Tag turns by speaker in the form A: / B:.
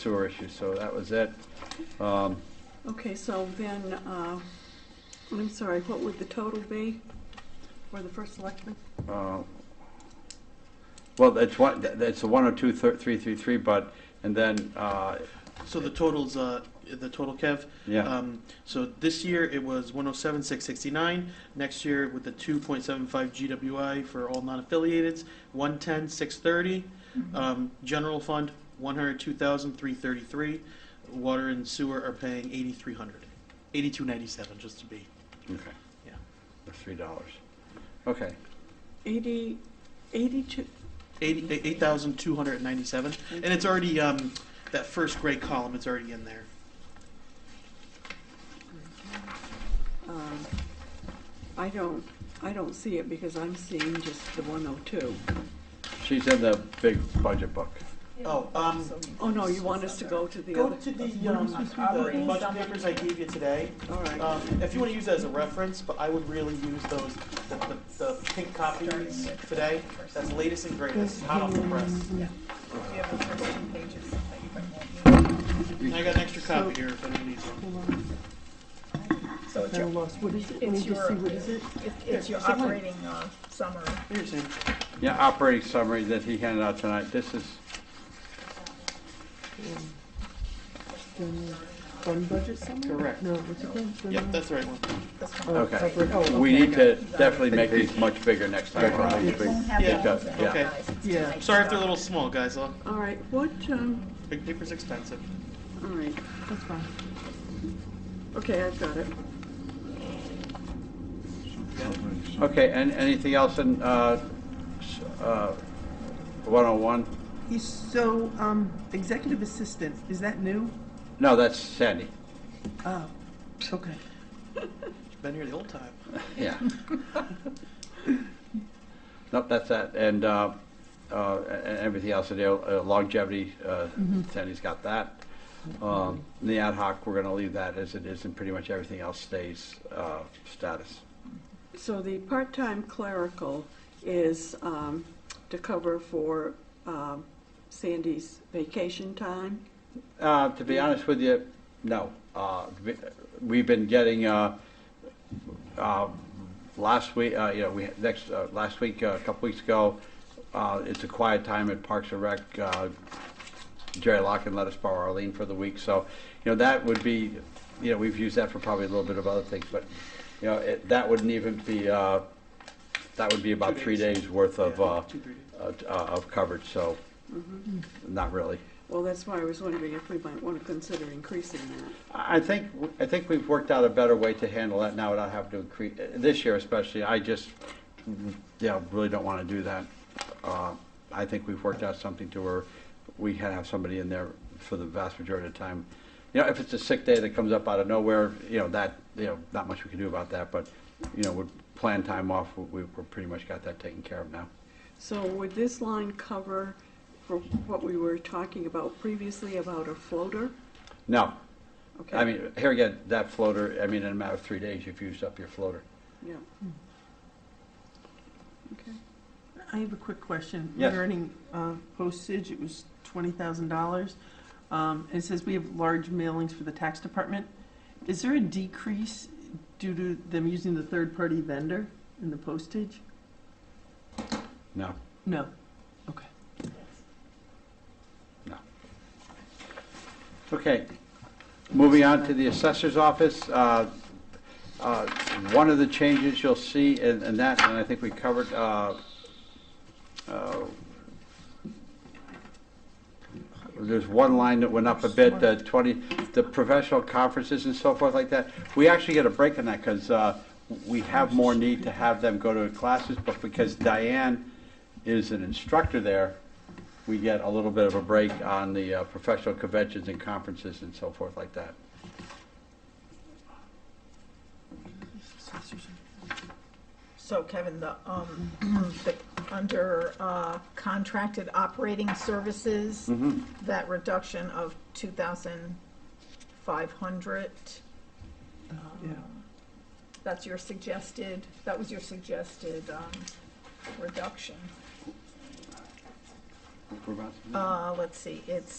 A: sewer issue, so that was it. Um,
B: Okay, so then, uh, I'm sorry, what would the total be for the first selectman?
A: uh, Well, that's one, that- that's the one oh two thir- three three three, but, and then, uh,
C: So the total's, uh, the total, Kev?
A: yeah,
C: Um, so this year it was one oh seven, six sixty-nine. Next year with the two point seven five GWI for all non-affiliated, one ten, six thirty.
B: Mm-hmm.
C: Um, general fund, one hundred two thousand, three thirty-three. Water and sewer are paying eighty-three hundred, eighty-two ninety-seven, just to be.
A: okay.
C: Yeah.
A: That's three dollars. Okay,
B: Eighty, eighty-two,
C: Eighty, eight thousand, two hundred and ninety-seven. And it's already, um, that first gray column, it's already in there.
B: um, I don't, I don't see it because I'm seeing just the one oh two.
A: she's in the big budget book.
C: Oh, um,
B: Oh, no, you want us to go to the
C: Go
B: other?
C: to the, um, the budget papers I gave you today.
B: All right,
C: Um, if you wanna use that as a reference, but I would really use those, the, the, the pink copies today, that's latest and greatest, hot off the press.
D: We have the first two pages that you might want.
C: And I got an extra copy here if anyone needs one.
D: So it's
E: I
D: your,
E: lost, what is it? Let me
D: it's
E: just see,
D: your,
E: what is it?
D: it's- it's your operating uh, summary.
C: Here, Sam.
A: Yeah, operating summary that he handed out tonight, this is,
E: General Fund budget summary?
C: Correct.
E: No, what's it called?
C: Yep, that's the right one.
D: This one.
E: Oh,
A: Okay.
E: operating- oh,
A: we
E: okay,
A: need
E: I
A: to definitely make these much bigger next time.
D: It won't have
C: Yeah,
D: all of them
A: yeah.
D: organized. It's
E: Yeah.
D: nice
C: Sorry if they're a
D: stuff.
C: little small, guys, uh,
B: all right, what, um,
C: big paper's expensive.
B: all right,
E: got it. That's fine.
B: okay, I've got it.
A: Okay, and anything else in, uh, s- uh, one oh one?
F: He's So, um, executive assistant, is that new?
A: No, that's Sandy,
F: Oh, okay.
C: Been here the whole time.
A: yeah. Nope, that's that, and, uh, uh, and everything else, the uh, longevity, uh, Sandy's got that. Um, the ad hoc, we're gonna leave that as it is, and pretty much everything else stays, uh, status.
B: So the part-time clerical is um, to cover for um, Sandy's vacation time.
A: Uh, to be honest with you, no. Uh, we- we've been getting, uh, uh, last week, uh, you know, we, next, uh, last week, uh, a couple weeks ago, uh, it's a quiet time at Parks and Rec. Uh, Jerry Locken let us borrow Arlene for the week, so, you know, that would be, you know, we've used that for probably a little bit of other things, but, you know, it, that wouldn't even be, uh, that would be about
C: Two
A: three
C: days.
A: days worth of,
C: Yeah,
A: uh,
C: two, three days.
A: uh, t- uh, of coverage, so, not really.
B: Well, that's why I was wondering if we might want to consider increasing that.
A: I think, I think we've worked out a better way to handle that now without having to increase, this year especially, I just, yeah, really don't want to do that. Uh, I think we've worked out something to where we can have somebody in there for the vast majority of the time. You know, if it's a sick day that comes up out of nowhere, you know, that, you know, not much we can do about that, but, you know, with plan time off, we, we've pretty much got that taken care of now.
B: So would this line cover for what we were talking about previously about a floater?
A: No,
B: Okay.
A: I mean, here again, that floater, I mean, in a matter of three days, you've used up your floater.
B: Yeah. Okay.
F: I have a quick question
A: Yes.
F: regarding uh, postage. It was twenty thousand dollars. Um, it says we have large mailings for the tax department. Is there a decrease due to them using the third-party vendor in the postage?
A: No,
F: No. Okay.
A: no. Okay, moving on to the assessor's office. uh, uh, One of the changes you'll see in in that, and I think we covered, uh, uh, there's one line that went up a bit, the 20, the professional conferences and so forth like that. We actually get a break on that because we have more need to have them go to classes, but because Diane is an instructor there, we get a little bit of a break on the uh, professional conventions and conferences and so forth like that.
D: So Kevin, the, um, the, under uh, contracted operating services, that reduction of two thousand five hundred, Um,
F: Yeah.
D: that's your suggested, that was your suggested um, reduction. Uh, Let's see, it's